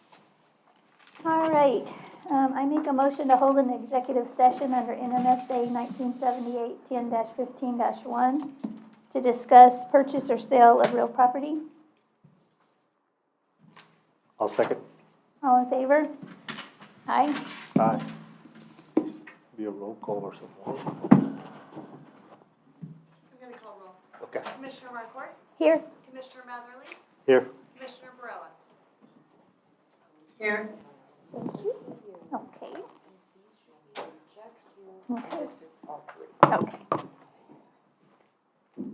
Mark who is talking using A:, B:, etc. A: All right, um, I make a motion to hold an executive session under NMSA nineteen seventy-eight, ten fifteen one to discuss purchase or sale of real property.
B: I'll second.
A: All in favor? Aye.
B: Aye. Be a roll call or something.
C: I'm going to call roll.
B: Okay,
C: Commissioner Markort,
A: Here.
C: Commissioner Matherly,
B: here.
C: Commissioner Barella. Here.
A: Thank you. Okay. Okay. Okay.